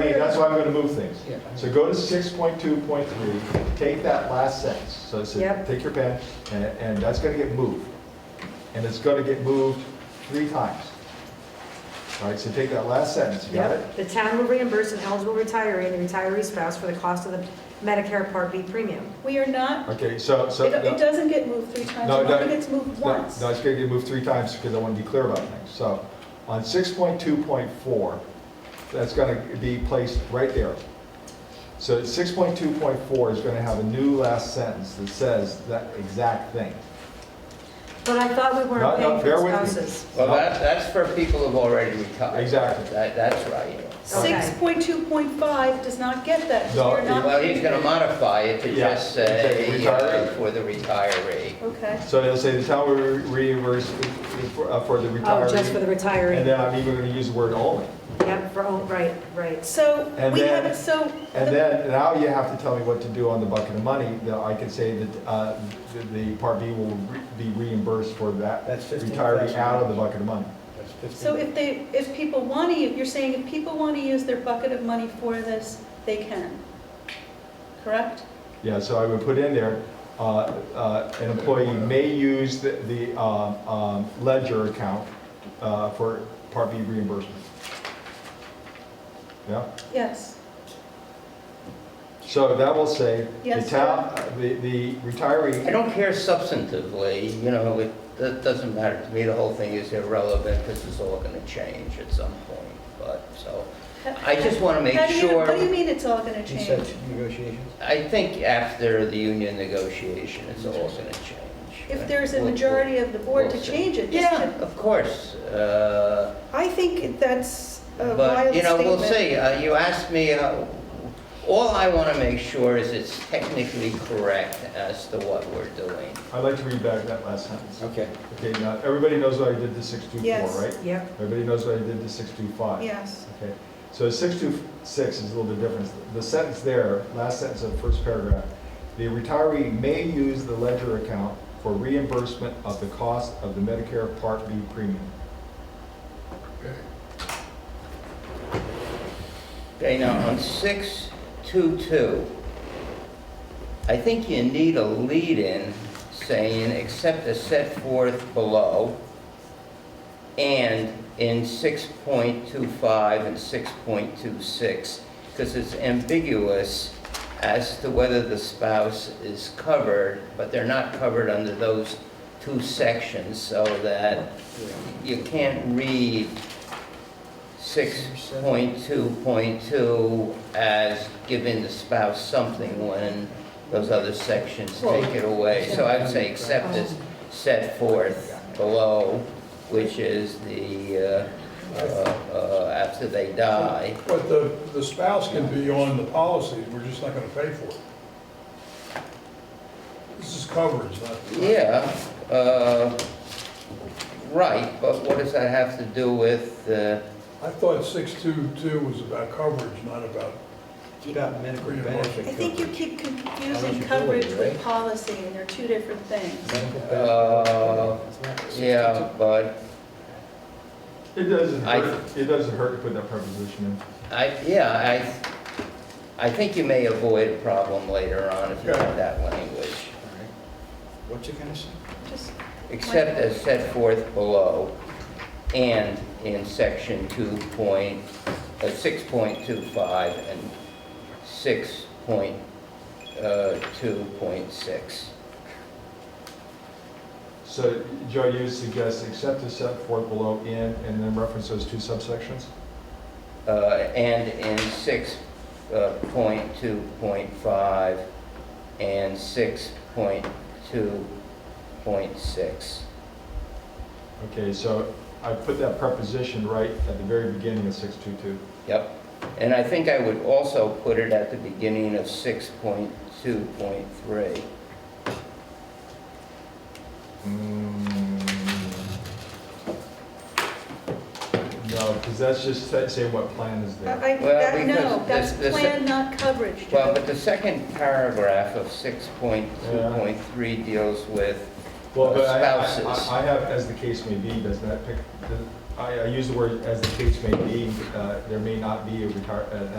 that's why I'm gonna move things. Yeah. So go to six point two point three, take that last sentence, so it says, Yep. take your pen, and, and that's gonna get moved. And it's gonna get moved three times. All right, so take that last sentence, you got it? Yep. The town will reimburse an eligible retiree and retiree spouse for the cost of the Medicare Part B premium. We are not, Okay, so, it so. it doesn't get moved three times, No, it no. only gets moved No, once. No, it's gonna get moved three times because I want to be clear about things. So on six point two point four, that's gonna be placed right there. So six point two point four is gonna have a new last sentence that says that exact thing. But I thought we No, no, weren't paying bear for with me. spouses. Well, that, that's for people who've already retired. Exactly. That, that's right. Okay. 6.2.5 does not get that, No, because we're not. Well, he's gonna modify it to Yeah, just exactly, say, uh, retiree. for the retiree. Okay, So it'll say the town will reimburse for uh, for the Oh, just for the retiree. And retiree. then I'm even gonna use the word only. Yep, for, all- right, right. so And we then- haven't, so. And the- then, now you have to tell me what to do on the bucket of money, that I can say that uh, the- the Part B will re- be reimbursed for that That's retiree out of the bucket of money. That's 15. So if they, if people want to, you're saying if people want to use their bucket of money for this, they can, correct? Yeah, so I would put in there, uh, uh, an employee may use the- the um, um, ledger account uh, for Part B reimbursement. Yeah, Yes. so that will say, the Yes, town, uh, the the I retiree, don't care substantively, you know, it, that doesn't matter to me, the whole thing is irrelevant, because it's all gonna change at some point, but, so. I just wanna make How do you- sure. What do you mean it's all going to You change? said negotiations? I think after the union negotiation, it's all gonna change. If there's a We'll- majority of the board to change it, just Yeah, of course. uh, I think that's a But, wild you know, we'll statement. see. Uh, You asked me, uh, all I want to make sure is it's technically correct as to what we're doing. I'd like to read back that last sentence. Okay. Okay, now, everybody knows what I did to 624, Yes. right? Yep, Everybody knows what I did to 625? Yes, Okay, so 626 is a little bit different. The sentence there, last sentence of the first paragraph, "The retiree may use the ledger account for reimbursement of the cost of the Medicare Part B premium." Okay, now on 622, I think you need a lead-in saying, except as set forth below, and in 6.25 and 6.26, because it's ambiguous as to whether the spouse is covered, but they're not covered under those two sections, so that you can't read 6.2.2 as giving the spouse something when those other sections take it away. So I would say except as set forth below, which is the, uh, uh, uh, after they die. But the, the spouse can be on the policy, we're just not gonna pay for it. This is coverage, not. Yeah, uh, right, but what does that have to do with, uh, I thought six-two-two was about coverage, not about, It's about medical Yeah. benefit. I think you coverage. keep confusing Eligibility, coverage with right? policy, and they're two different things. Medical benefit. Uh, It's not- it's yeah, but It doesn't I- hurt, it doesn't hurt to put that preposition in. I, yeah, I, I think you may avoid a problem later on if you have that language, All right. What you gonna say? Just except as set forth below and in section two point, uh, six point two five and six point, uh, two point six. So Joe, you suggest except as set forth below in, and then reference those two subsections? Uh, and in six, uh, point two point five and six point two point six. Okay, so I put that preposition right at the very beginning of 622. Yep, and I think I would also put it at the beginning of six point two point three. Mm. No, because that's just sa- saying what plan is I, there. I, Well, that- no, because that's this- this- plan, not coverage, Well, Joe. but the second paragraph of six point two point three deals with, Well, but I- I- Spouses. I I have, as the case may be, does that pick, the- I I use the word as the case may be, uh, there may not be a retire, an